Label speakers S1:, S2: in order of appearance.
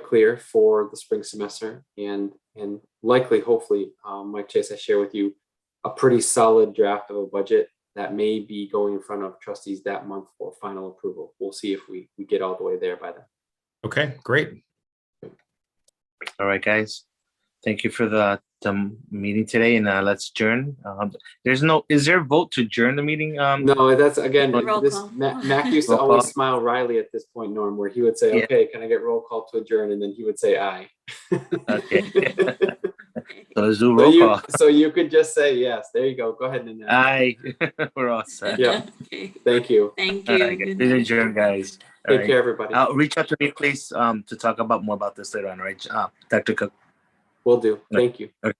S1: clear for the spring semester and, and likely, hopefully, um, Mike Chase, I share with you a pretty solid draft of a budget that may be going in front of trustees that month for final approval. We'll see if we, we get all the way there by then.
S2: Okay, great.
S3: All right, guys. Thank you for the, the meeting today and uh, let's adjourn. Um, there's no, is there a vote to adjourn the meeting? Um,
S1: No, that's again,
S4: Roll
S1: this,
S4: call.
S1: Mac, Mac used to
S3: Roll call.
S1: always smile wryly at this point, Norm, where he would say,
S3: Yeah.
S1: okay, can I get roll call to adjourn? And then he would say aye.
S3: okay. So let's do
S1: So
S3: roll
S1: you,
S3: call.
S1: so you could just say yes. There you go. Go ahead and,
S3: Aye, we're all set.
S1: Yeah.
S4: Okay.
S1: thank you.
S4: Thank
S3: All
S4: you.
S3: right, guys.
S4: Good
S3: Please
S4: night.
S3: adjourn, guys. All
S1: Take
S3: right.
S1: care, everybody.
S3: Uh, reach out to me, please, um, to talk about more about this later on, all right? Uh, Dr. Cook.
S1: Will do.
S3: Right.
S1: Thank you.